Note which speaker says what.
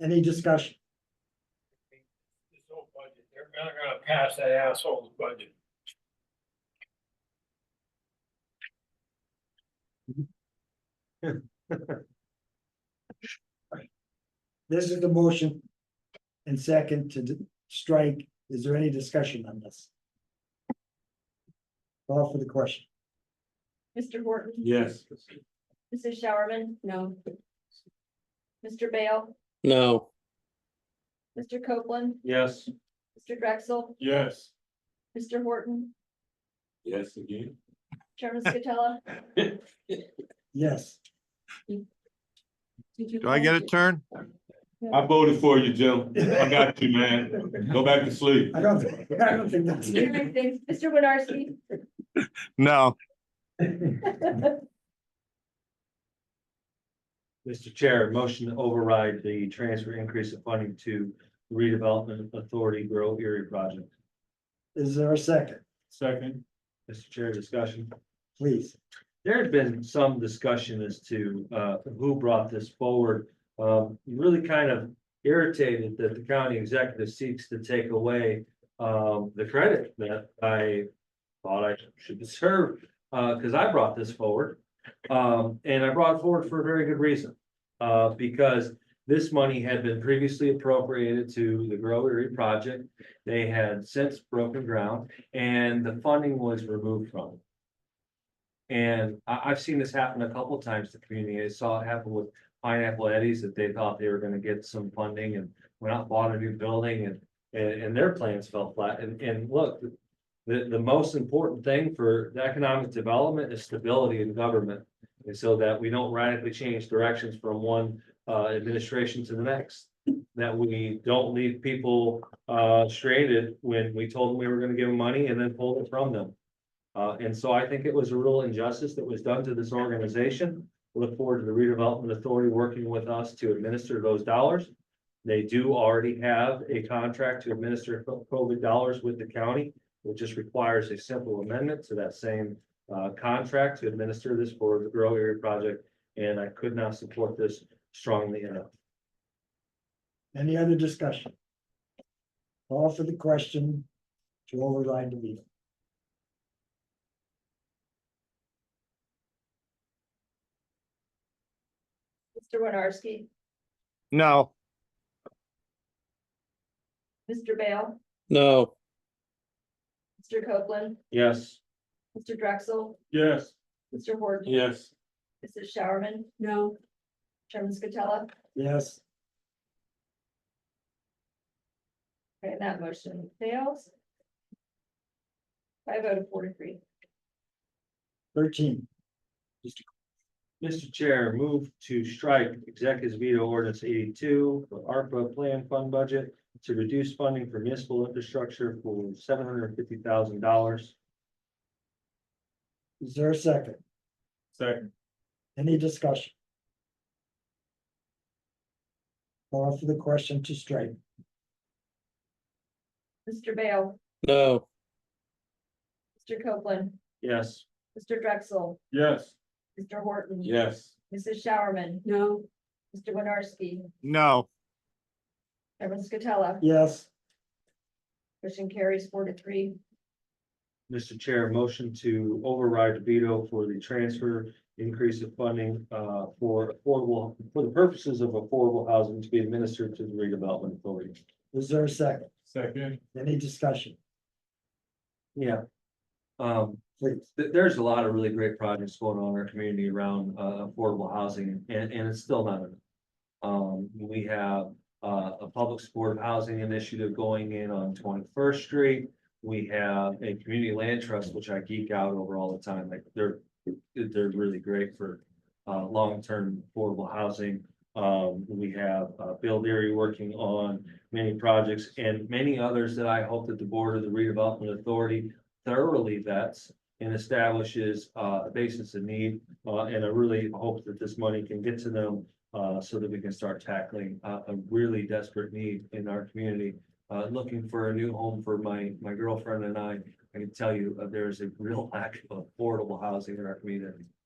Speaker 1: Any discussion?
Speaker 2: This whole budget, they're not gonna pass that asshole's budget.
Speaker 1: This is the motion. And second to d- strike, is there any discussion on this? Call for the question.
Speaker 3: Mr. Horton,
Speaker 4: Yes.
Speaker 3: Mrs. Showerman, no. Mr. Bale,
Speaker 5: no,
Speaker 3: Mr. Copeland,
Speaker 4: Yes.
Speaker 3: Mr. Drexel,
Speaker 4: Yes.
Speaker 3: Mr. Horton,
Speaker 4: Yes, again.
Speaker 3: Chairman Scatella.
Speaker 1: Yes,
Speaker 6: Do I get a turn?
Speaker 4: I voted for you, Jim. I got you, man. Go back to sleep.
Speaker 1: I don't, think- I don't think that's.
Speaker 3: Mr. Hastings, Mr. Winarski,
Speaker 6: No,
Speaker 7: Mr. Chair, motion to override the transfer increase of funding to redevelopment authority Borough Erie project.
Speaker 1: Is there a second,
Speaker 4: Second.
Speaker 7: Mr. Chair, discussion.
Speaker 1: please?
Speaker 7: There had been some discussion as to uh who brought this forward. Um, really kind of irritated that the county executive seeks to take away um the credit that I thought I should deserve, uh, because I brought this forward. Um, and I brought it forward for a very good reason. Uh, because this money had been previously appropriated to the Grow Erie project. They had since broken ground and the funding was removed from it. And I, I've seen this happen a couple of times to community. I saw it happen with Pineapple Eddies that they thought they were gonna get some funding and went out and bought a new building and, and, and their plans fell flat. And, and look, the, the most important thing for the economic development is stability in government. And so that we don't radically change directions from one, uh, administration to the next. That we don't leave people, uh, stranded when we told them we were gonna give them money and then pulled it from them. Uh, and so I think it was a real injustice that was done to this organization. Look forward to the redevelopment authority working with us to administer those dollars. They do already have a contract to administer co- COVID dollars with the county, which just requires a simple amendment to that same uh, contract to administer this for the Grow Area Project, and I could not support this strongly enough.
Speaker 1: Any other discussion? Call for the question to override the veto.
Speaker 3: Mr. Winarski,
Speaker 6: no,
Speaker 3: Mr. Bale,
Speaker 5: no,
Speaker 3: Mr. Copeland,
Speaker 7: Yes,
Speaker 3: Mr. Drexel,
Speaker 4: Yes.
Speaker 3: Mr. Horton,
Speaker 4: Yes.
Speaker 3: Mrs. Showerman. No. Chairman Scatella,
Speaker 1: Yes,
Speaker 3: okay, that motion fails. By a vote of four to three.
Speaker 1: thirteen,
Speaker 7: Mr. Chair, move to strike executive veto ordinance eighty-two for ARPA plan fund budget to reduce funding for municipal infrastructure for seven hundred and fifty thousand dollars.
Speaker 1: is there a second?
Speaker 4: Second.
Speaker 1: Any discussion? Call for the question to strike.
Speaker 3: Mr. Bale,
Speaker 5: no,
Speaker 3: Mr. Copeland,
Speaker 7: Yes,
Speaker 3: Mr. Drexel,
Speaker 4: Yes.
Speaker 3: Mr. Horton.
Speaker 4: Yes.
Speaker 3: Mrs. Showerman. No. Mr. Winarski,
Speaker 6: no,
Speaker 3: Chairman Scatella,
Speaker 1: Yes,
Speaker 3: motion carries four to three.
Speaker 7: Mr. Chair, motion to override veto for the transfer increase of funding uh for affordable, for the purposes of affordable housing to be administered to the redevelopment authority.
Speaker 1: is there a second?
Speaker 4: Second.
Speaker 1: Any discussion,
Speaker 7: Yeah. Um,
Speaker 1: please?
Speaker 7: th- there's a lot of really great projects going on in our community around uh affordable housing and and it's still not enough. Um, we have uh a public supportive housing initiative going in on Twenty First Street. We have a community land trust, which I geek out over all the time, like they're, they're really great for uh long-term affordable housing. Um, we have uh Bill Leary working on many projects and many others that I hope that the Board of the Redevelopment Authority thoroughly vets and establishes uh, a basis of need. Uh, and I really hope that this money can get to them uh, so that we can start tackling uh, a really desperate need in our community. Uh, looking for a new home for my, my girlfriend and I. I can tell you, uh, there is a real lack of affordable housing in our community.